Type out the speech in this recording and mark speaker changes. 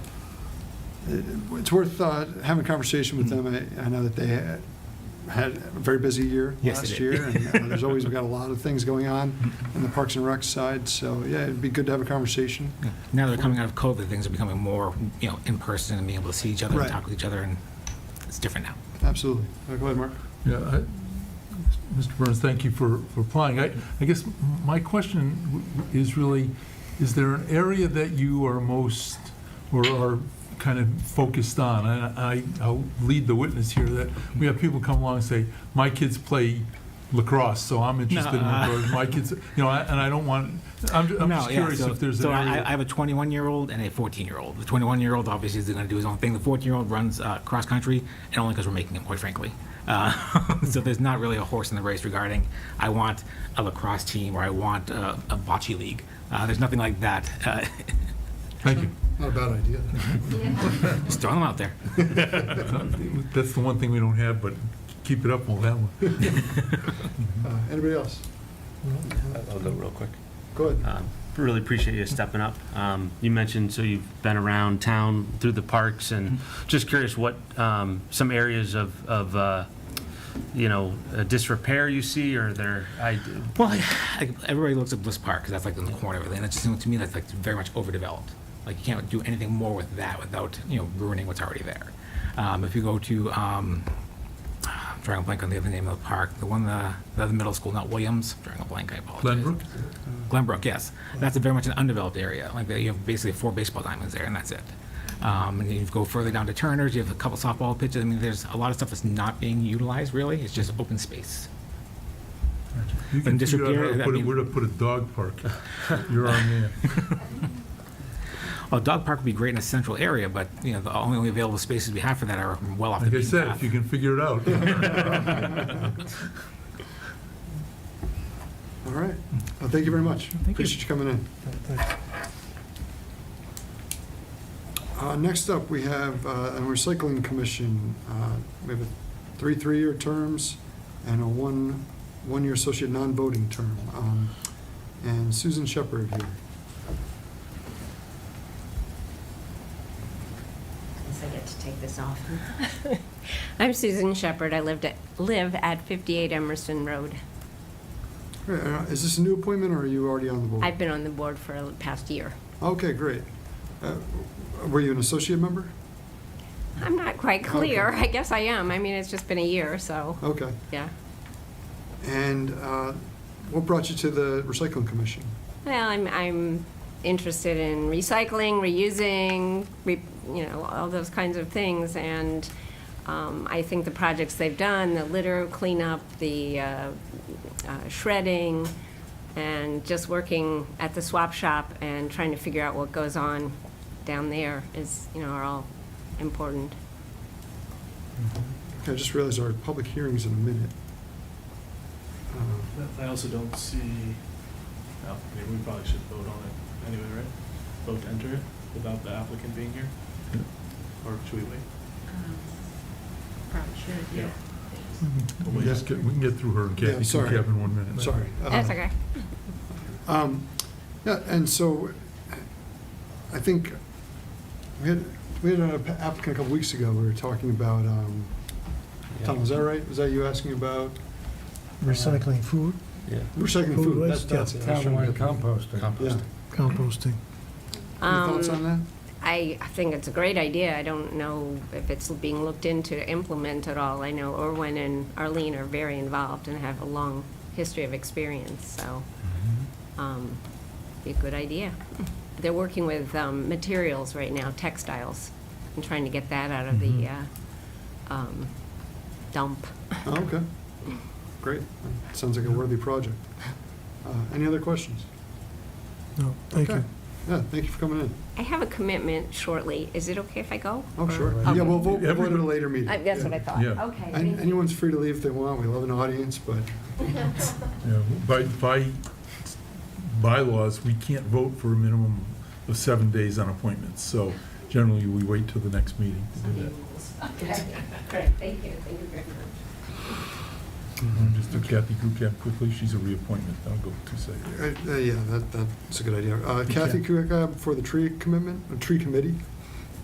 Speaker 1: it's worth uh, having a conversation with them. I I know that they had- had a very busy year
Speaker 2: Mm-hmm. Yes, they
Speaker 1: last
Speaker 2: did.
Speaker 1: year, and uh, there's always, we've got a lot of things going on in the Parks and Rec side, so yeah, it'd be good to have a conversation.
Speaker 2: Now that they're coming out of COVID, things are becoming more, you know, in person and being able to see each other and
Speaker 1: Right.
Speaker 2: talk with each other, and it's different now.
Speaker 1: Absolutely. Uh, Go ahead, Mark.
Speaker 3: Yeah, I- Mr. Burns, thank you for, for applying. I, I guess my question w- w- is really, is there an area that you are most, or are kind of focused on? And I, I'll lead the witness here, that we have people come along and say, my kids play lacrosse, so I'm interested in
Speaker 2: Nuh-uh.
Speaker 3: lacrosse. My kids, you know, I- and I don't want, I'm, ju- I'm
Speaker 2: No,
Speaker 3: just
Speaker 2: yeah,
Speaker 3: curious
Speaker 2: so-
Speaker 3: if there's an
Speaker 2: So
Speaker 3: area.
Speaker 2: I I have a 21-year-old and a 14-year-old. The 21-year-old obviously is going to do his own thing. The 14-year-old runs uh, cross-country, and only because we're making him, quite frankly. Uh, So there's not really a horse in the race regarding, I want a lacrosse team, or I want uh, a bocce league. Uh, There's nothing like that. Uh,
Speaker 3: Thank you.
Speaker 4: Not a bad idea.
Speaker 2: Just throwing them out there.
Speaker 3: That's the one thing we don't have, but keep it up, we'll have one.
Speaker 1: Uh, Anybody else?
Speaker 5: I'll go real quick.
Speaker 1: Go ahead.
Speaker 5: Um, Really appreciate you stepping up. Um, You mentioned, so you've been around town through the parks, and just curious what um, some areas of, of uh, you know, uh, disrepair you see, or there, I,
Speaker 2: Well, I- I- everybody looks at Bliss Park, because that's like in the corner of it, and it just seems to me that's like very much overdeveloped. Like, you can't do anything more with that without, you know, ruining what's already there. Um, If you go to, um, I'm drawing a blank on the other name of the park, the one, uh, the other middle school, not Williams, drawing a blank, I apologize.
Speaker 3: Glenbrook?
Speaker 2: Glenbrook, yes. That's a very much an undeveloped area. Like, you have basically four baseball diamonds there, and that's it. Um, and then you go further down to Turner's, you have a couple softball pitches. I mean, there's a lot of stuff that's not being utilized, really. It's just open space.
Speaker 3: You can
Speaker 2: And
Speaker 3: figure out how
Speaker 2: disappear,
Speaker 3: to
Speaker 2: I
Speaker 3: put it-
Speaker 2: mean-
Speaker 3: where to put a dog park. You're our man.
Speaker 2: Well, dog park would be great in a central area, but, you know, the only only available spaces we have for that are well off the
Speaker 3: Like I
Speaker 2: beaten
Speaker 3: said, if
Speaker 2: path.
Speaker 3: you can figure it out.
Speaker 1: All right. Well, thank you very much. Appreciate you coming in. Uh, Next up, we have uh, a recycling commission. Uh, We have a three three-year terms and a one, one-year associate non-voting term. Um, And Susan Shepherd here.
Speaker 6: Guess I get to take this off. I'm Susan Shepherd. I lived at, live at 58 Emerson Road.
Speaker 1: All right, uh, Is this a new appointment or are you already on the board?
Speaker 6: I've been on the board for the past year.
Speaker 1: Okay, great. Uh, Were you an associate member?
Speaker 6: I'm not quite clear. I guess I am. I mean, it's just been a year, so,
Speaker 1: Okay.
Speaker 6: yeah.
Speaker 1: And uh, what brought you to the recycling commission?
Speaker 6: Well, I'm, I'm interested in recycling, reusing, re, you know, all those kinds of things, and, um, I think the projects they've done, the litter cleanup, the, uh, uh, shredding, and just working at the swap shop and trying to figure out what goes on down there is, you know, are all important.
Speaker 1: I just realized our public hearing's in a minute. Uh,
Speaker 7: I also don't see, well, maybe we probably should vote on it anyway, right? Vote to enter it without the applicant being here? Or should we wait?
Speaker 6: Um, Probably should,
Speaker 7: Yeah.
Speaker 3: We can just get, we can get through her and
Speaker 1: Yeah,
Speaker 3: Kathy, and
Speaker 1: sorry.
Speaker 3: Kevin in one minute.
Speaker 1: Sorry. Uh,
Speaker 6: That's okay.
Speaker 1: um, Yeah, and so I think we had, we had an applicant a couple weeks ago, we were talking about, um, Tom, was that right? Was that you asking about
Speaker 4: Recycling food,
Speaker 5: yeah.
Speaker 1: recycling
Speaker 4: Food
Speaker 1: food? That's
Speaker 4: waste,
Speaker 1: that's it. I was trying to
Speaker 8: Townwide composting.
Speaker 1: get- Yeah.
Speaker 4: composting.
Speaker 1: Any thoughts
Speaker 6: Um,
Speaker 1: on that?
Speaker 6: I think it's a great idea. I don't know if it's being looked into to implement at all. I know Irwin and Arlene are very involved and have a long history of experience, so,
Speaker 1: Mm-hmm.
Speaker 6: um, be a good idea. They're working with, um, materials right now, textiles, and trying to get that out of the, uh,
Speaker 1: Mm-hmm.
Speaker 6: um, dump.
Speaker 1: Oh, Okay, great. Sounds like a worthy project. Uh, Any other questions?
Speaker 4: No, thank
Speaker 1: Okay.
Speaker 4: you.
Speaker 1: Yeah, thank you for coming in.
Speaker 6: I have a commitment shortly. Is it okay if I go?
Speaker 1: Oh, sure.
Speaker 6: Okay.
Speaker 1: Yeah, we'll vote we'll vote at a later
Speaker 6: Uh,
Speaker 1: meeting.
Speaker 6: That's what Uh, um, I thought.
Speaker 3: Yeah.
Speaker 6: Okay.
Speaker 1: And
Speaker 6: thank you.
Speaker 1: Anyone's free to leave if they want, we love an audience, but,
Speaker 3: Yeah, By, by bylaws, we can't vote for a minimum of seven days on appointments, so generally, we wait till the next meeting to do that.
Speaker 6: Okay, great, thank you, thank you very much.
Speaker 1: Mm-hmm.
Speaker 3: And Just do Kathy Kucap quickly, she's a reappointment, I'll go two seconds.
Speaker 1: uh, uh, yeah, that, that's a good idea. Uh, Kathy Kuica for the tree commitment, uh, tree committee.